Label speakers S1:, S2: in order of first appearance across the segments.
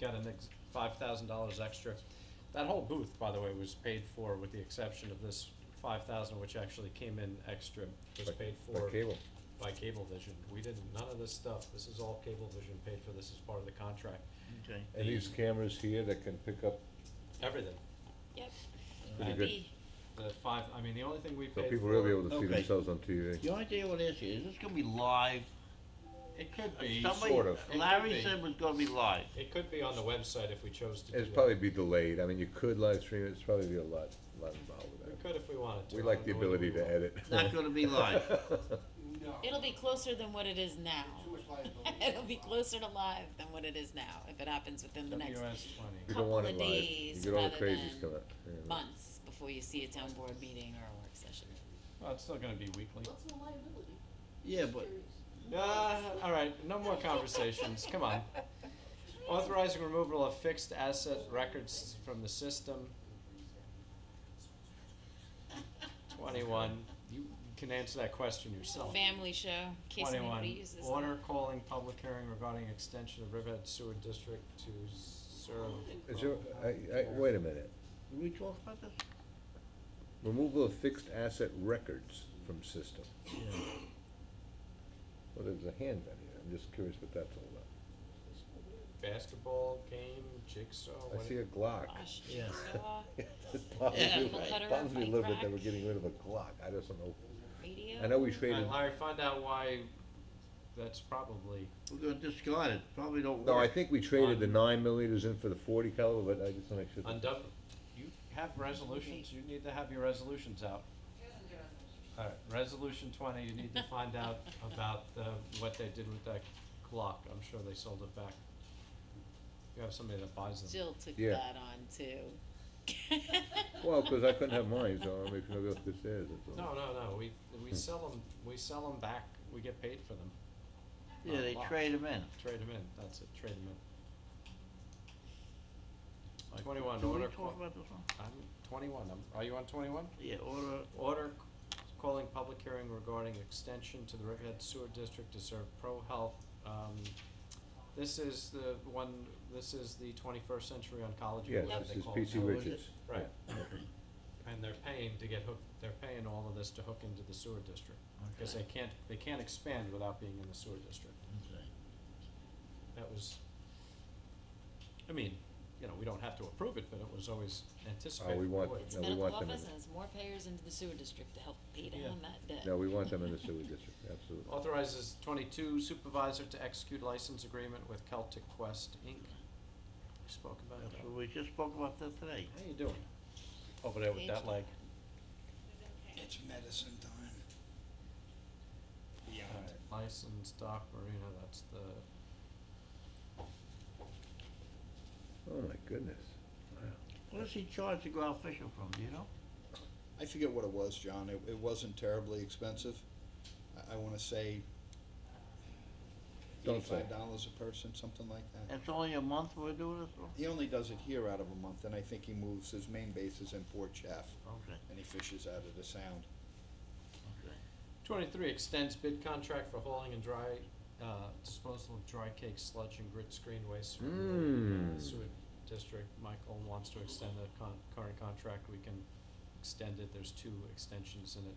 S1: got an ex- five thousand dollars extra. That whole booth, by the way, was paid for with the exception of this five thousand, which actually came in extra, was
S2: By-
S1: paid
S2: by
S1: for
S2: cable.
S1: by Cablevision. We didn't, none of this stuff, this is all Cablevision paid for, this is part of the contract,
S3: Okay.
S2: And these cameras here that can pick up,
S1: everything.
S4: Yep.
S2: Pretty
S4: Maybe.
S2: good.
S1: The five, I mean, the only thing we
S2: so
S1: paid for.
S2: people will be able to see
S3: Okay.
S2: themselves on TV.
S3: The only thing I would ask you, is this gonna be live?
S1: It could be,
S3: Somebody-
S2: Sort of.
S1: It could
S3: Larry
S1: be.
S3: said it was gonna be live.
S1: it could be on the website if we chose to do that.
S2: It'd probably be delayed, I mean, you could live stream it, it's probably be a lot, lot involved
S1: We
S2: with that.
S1: could if we wanted to.
S2: We
S1: I
S2: like
S1: don't
S2: the
S1: know whether
S2: ability
S1: we will.
S2: to edit.
S3: Not gonna be live.
S4: It'll be closer than what it is now. It'll be closer to live than what it is now if it happens within the next
S1: WS twenty.
S2: You don't want it
S4: Couple of
S2: live, you
S4: days
S2: get all the
S4: rather
S2: crazies
S4: than
S2: coming out. yeah.
S4: months before you see a town board meeting or a work session.
S1: Well, it's still gonna be weekly.
S5: What's the liability?
S3: Yeah, but
S1: Uh, all right, no more conversations. Come on. Authorizing removal of fixed asset records from the system. Twenty-one. You can answer that question
S3: Oh.
S1: yourself.
S4: Family show, in case
S1: Twenty-one.
S4: anybody uses them.
S1: Order calling public hearing regarding extension of Riverhead Sewer District to serve.
S2: Is there, I, I, wait a minute,
S3: did we talk about this?
S2: removal of fixed asset records from system. Well, there's a hand down here, I'm just curious what that's all about.
S1: Basketball game, jigsaw.
S2: I
S1: what-
S2: see a Glock.
S4: Gosh,
S3: Yeah.
S4: jigsaw,
S2: It bothers
S3: Yeah,
S2: me-
S4: apple cutter,
S2: bothers me a
S4: bike
S2: little bit that
S4: rack.
S2: we're getting rid of a Glock, I just don't know.
S4: radio.
S2: I know we
S1: All
S2: traded,
S1: right, Larry, find out why that's probably.
S3: We're gonna discard it, probably don't work.
S2: no, I think we traded the nine millimeters in for the forty caliber, but I just wanna make sure. that-
S1: Undone, you have resolutions, you need to have your resolutions out. Alright, resolution twenty, you need to find out about, uh, what they did with that clock, I'm sure they sold it back. You have somebody that buys them.
S4: Jill took
S2: Yeah.
S4: that on too.
S2: Well, 'cause I couldn't have mine, so I'm making go up the stairs, that's
S1: No,
S2: all.
S1: no, no, we, we sell them, we sell them back, we get paid for them,
S3: Yeah, they trade them in.
S1: trade them in, that's it, trade them in. Twenty-one,
S3: Did we
S1: order,
S3: talk
S1: call-
S3: about this one?
S1: I'm, twenty-one, I'm, are you on twenty-one?
S3: Yeah, order,
S1: Order calling public hearing regarding extension to the Riverhead Sewer District to serve Pro Health. Um, This is the one, this is the twenty-first Century Oncology, or
S2: Yes,
S1: whatever
S2: this
S1: they
S2: is
S1: call it
S2: P.C.
S1: now.
S3: Wi-
S2: Richards.
S1: Right. And they're paying to get hooked, they're paying all of this to hook into the sewer district. Because they
S3: Okay.
S1: can't, they can't expand without being in the sewer district.
S3: okay.
S1: That was, I mean, you know, we don't have to approve it, but it was always anticipated.
S2: we want-
S1: would.
S4: It's
S2: No, we
S4: medical
S2: want them in
S4: office
S2: it.
S4: and it's more payers into the sewer district to help pay
S1: Yeah.
S4: down that debt.
S2: No, we want them in the sewer district, absolutely.
S1: Authorizes twenty-two supervisor to execute license agreement with Celtic Quest Inc. We Spoke about
S3: That's
S1: that.
S3: what we just spoke about that today.
S1: How you doing? Over there with that leg.
S6: It's medicine time. Yeah.
S1: Alright, License Doc Marina, that's the,
S2: Oh, my goodness.
S3: What does he charge to go out fishing from, do you know?
S6: I forget what it was, John. It, it wasn't terribly expensive. I, I wanna say
S2: Don't say.
S6: eighty-five dollars a person, something like that.
S3: It's only a month we're doing this for?
S6: He only does it here out of a month, and I think he moves, his main base is in Port Chaff,
S3: Okay,
S6: and he fishes out of the sound.
S3: okay.
S1: twenty-three extends bid contract for hauling and dry, uh, disposal of dry cake sludge and grit screen waste from the uh,
S2: Mm.
S1: sewer district. Michael wants to extend the con- current contract, we can extend it, there's two extensions in it.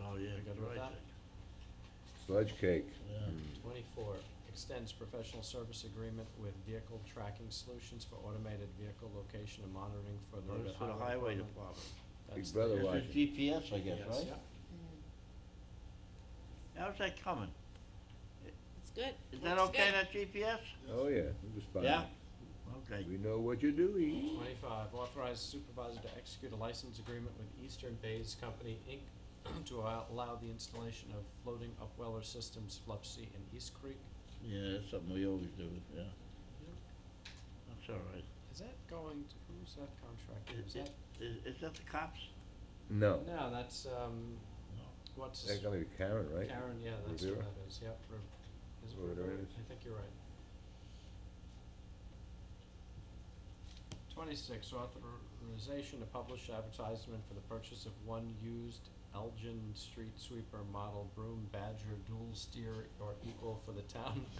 S3: Oh, yeah.
S1: You good with
S3: right
S1: that?
S3: there.
S2: Sludge cake.
S3: Yeah.
S2: Mm.
S1: Twenty-four, extends professional service agreement with Vehicle Tracking Solutions for automated vehicle location and monitoring for the
S3: Oh,
S1: Riverhead
S3: it's for the
S1: Highway
S3: highway
S1: Department.
S3: department.
S1: That's
S2: Big Brother
S1: the-
S2: Otherwise-
S3: This is GPS, I guess,
S1: Yes,
S3: right?
S1: yeah.
S3: How's that coming?
S4: It's good.
S3: Is that
S4: Works
S3: okay,
S4: good.
S3: that GPS?
S2: Oh, yeah, we just buy
S3: Yeah?
S2: it.
S3: Okay.
S2: We know what you're doing.
S1: Twenty-five, authorize supervisor to execute a license agreement with Eastern Bays Company, Inc. to allow- allow the installation of floating upweller systems, Flupsy and East Creek.
S3: Yeah, that's something we always do, yeah. That's all right.
S1: Is that going to, who's that contractor, is
S3: Is,
S1: that?
S3: is, is that the cops?
S2: No,
S1: No, that's, um, what's his
S2: that's gonna be Karen, right?
S1: Karen, yeah, that's who
S2: Rivera?
S1: that is, yep, Riv- is it
S2: Or whatever it
S1: Rivera?
S2: is.
S1: I think you're right. Twenty-six, authorization to publish advertisement for the purchase of one used Elgin street sweeper model broom Badger dual steer or equal for the town